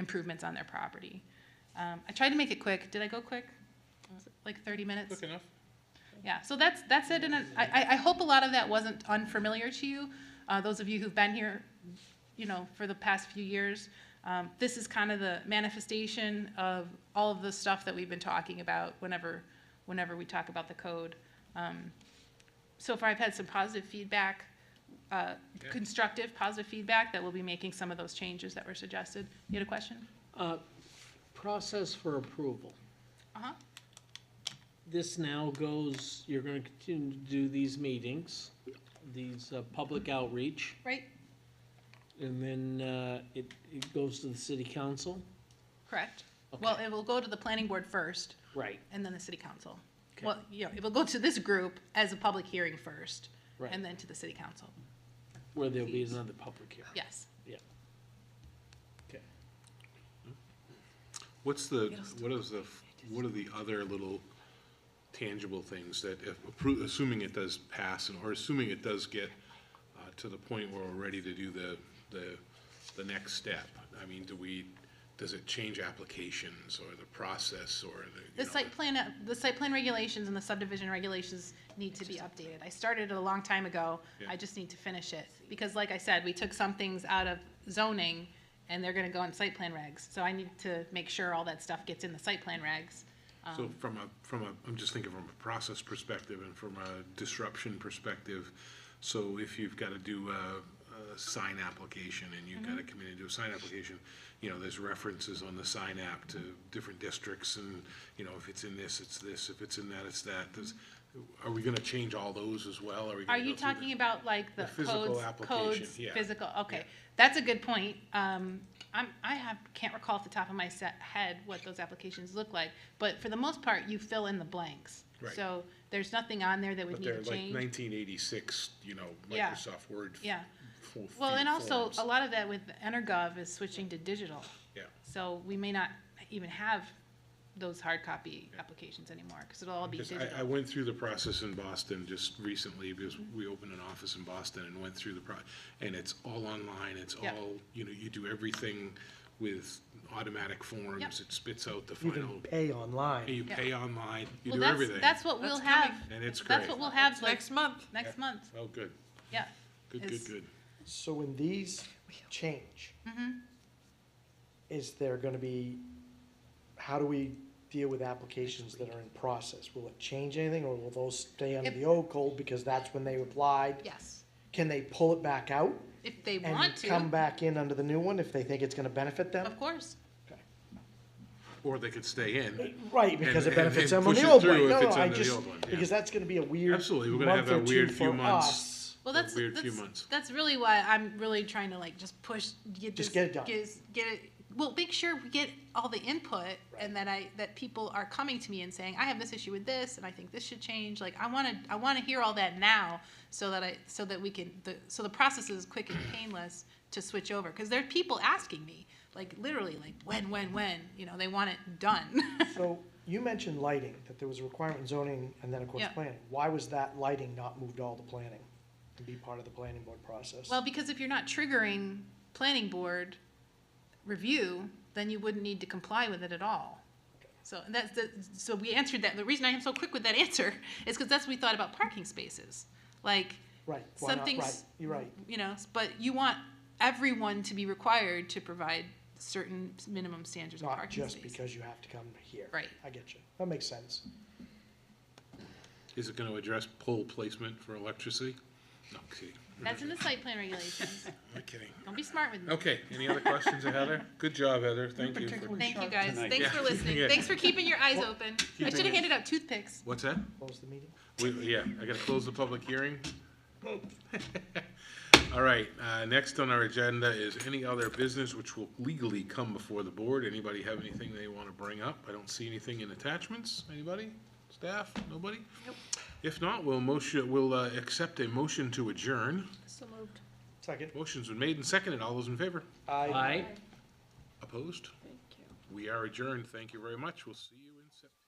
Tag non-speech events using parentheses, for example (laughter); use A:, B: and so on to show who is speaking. A: improvements on their property. Um, I tried to make it quick. Did I go quick? Was it Like thirty minutes?
B: Quick enough?
A: Yeah, so that's, that's it, and I, I, I hope a lot of that wasn't unfamiliar to you. Uh, those of you who've been here, you know, for the past few years, um, this is kind of the manifestation of all of the stuff that we've been talking about whenever, whenever we talk about the code. Um, so far, I've had some positive feedback, uh,
B: Yeah.
A: constructive, positive feedback, that we'll be making some of those changes that were suggested. You had a question?
C: Uh, Process for approval.
A: Uh-huh,
C: This now goes, you're gonna continue to do these meetings, these uh, public outreach,
A: right,
C: and then uh, it, it goes to the city council?
A: correct. Well,
C: Okay.
A: it will go to the planning board first,
C: Right,
A: and then the city council.
C: Okay.
A: Well, yeah, it will go to this group as a public hearing first,
C: right,
A: and then to the city council,
C: where there'll be another public hearing.
A: yes.
C: Okay.
B: What's the, what is the, what are the other little tangible things that if, appro- assuming it does pass and, or assuming it does get uh, to the point where we're ready to do the, the, the next step? I mean, do we, does it change applications or the process or the? you
A: The
B: know,
A: site plan, uh, the site plan regulations and the subdivision regulations need to be updated. I started it a long time ago,
B: Yeah.
A: I just need to finish it. Because like I said, we took some things out of zoning, and they're gonna go in site plan regs. So I need to make sure all that stuff gets in the site plan regs. Um,
B: So from a, from a, I'm just thinking from a process perspective and from a disruption perspective. So if you've got to do a, a sign application and you've
A: Mm-hmm.
B: got to come in and do a sign application, you know, there's references on the sign app to different districts and, you know, if it's in this, it's this, if it's in that, it's that. Does, are we going to change all those as well? Are we?
A: Are
B: gonna
A: you
B: go through the-
A: talking about like the
B: The physical
A: codes,
B: application,
A: codes,
B: yeah.
A: physical, okay, that's a good point. Um, I'm, I have, can't recall off the top of my set, head what those applications look like, but for the most part, you fill in the blanks.
B: Right.
A: So there's nothing on there that would
B: But
A: need
B: they're
A: to
B: like
A: change,
B: nineteen eighty-six, you know,
A: Yeah.
B: Microsoft Word. f-
A: yeah.
B: full
A: Well,
B: feed
A: and also,
B: forms.
A: a lot of that with EnerGov is switching to digital,
B: Yeah,
A: so we may not even have those hard copy applications anymore, because it'll all be
B: Because
A: digital.
B: I, I went through the process in Boston just recently, because we opened an office in Boston and went through the pro, and it's all online, it's
A: Yep.
B: all, you know, you do everything with automatic forms,
A: Yep.
B: it spits out the
D: You can
B: final,
D: pay online.
B: you
A: Yeah.
B: pay online, you
A: Well,
B: do
A: that's,
B: everything.
A: that's what
E: That's
A: we'll have,
E: coming.
B: And it's
A: that's
B: great.
A: what we'll have like,
E: Next month.
A: next month,
B: Oh, good,
A: yeah.
B: good, good,
A: Is-
B: good.
D: So when these change,
A: Mm-hmm.
D: is there gonna be, how do we deal with applications that are in process? Will it change anything, or will those stay under
A: If-
D: the old code because that's when they applied?
A: Yes,
D: Can they pull it back out
A: if they
D: and
A: want to.
D: come back in under the new one if they think it's gonna benefit them?
A: Of course.
B: Or they could stay in,
D: Right, because
B: And-
D: it benefits
B: and
D: them on
B: push
D: the
B: it
D: old
B: through
D: one. No,
B: if
D: no,
B: it's
D: I
B: under the
D: just,
B: old one, yeah.
D: because that's gonna be a weird
B: Absolutely, we're gonna have
D: month or
B: a weird
D: two
B: few
D: for
B: months.
D: us.
A: Well,
B: A
A: that's
B: weird
A: that's,
B: few months.
A: That's really why I'm really trying to like just push, get
D: Just
A: this-
D: get it done.
A: Get, get it. Well, make sure we get all the input, and that I that people are coming to me and saying, I have this issue with this, and I think this should change. Like I want to, I want to hear all that now, so that I, so that we can, the, so the process is quick and painless to switch over, because there are people asking me, like literally, like when, when, when, you know, they want it done. (laughs)
D: So you mentioned lighting, that there was a requirement in zoning and then of course
A: Yeah.
D: planning. Why was that lighting not moved all to planning and be part of the planning board process?
A: Well, because if you're not triggering planning board review, then you wouldn't need to comply with it at all. So that's the, so we answered that. The reason I am so quick with that (laughs) answer is because that's what we thought about parking spaces. Like,
D: Right, why not,
A: something's-
D: right, you're right.
A: you know, but you want everyone to be required to provide certain minimum standards of
D: Not
A: parking
D: just
A: space.
D: because you have to come here.
A: Right.
D: I get you. That makes sense.
B: is it gonna address pole placement for electricity? No, kidding,
A: That's in the site plan (laughs) regulations.
B: I'm kidding.
A: Don't be smart with me.
B: Okay, any other questions, Heather? Good job, Heather, thank you. for-
A: Thank you, guys. Thanks for
B: Yeah.
A: listening.
B: (laughs) Yeah.
A: Thanks for keeping your eyes open. I should have handed out toothpicks.
B: What's that?
D: Close the meeting.
B: We, yeah, I gotta close the public hearing. All right, uh, next on our agenda is any other business which will legally come before the board. Anybody have anything they wanna bring up? I don't see anything in attachments. Anybody? Staff? Nobody? If not, we'll motion, we'll, uh, accept a motion to adjourn.
A: So moved.
D: Second.
B: Motion's been made and seconded. All those in favor?
D: I.
C: Aye.
B: Opposed? Thank you. We are adjourned. Thank you very much. We'll see you in September.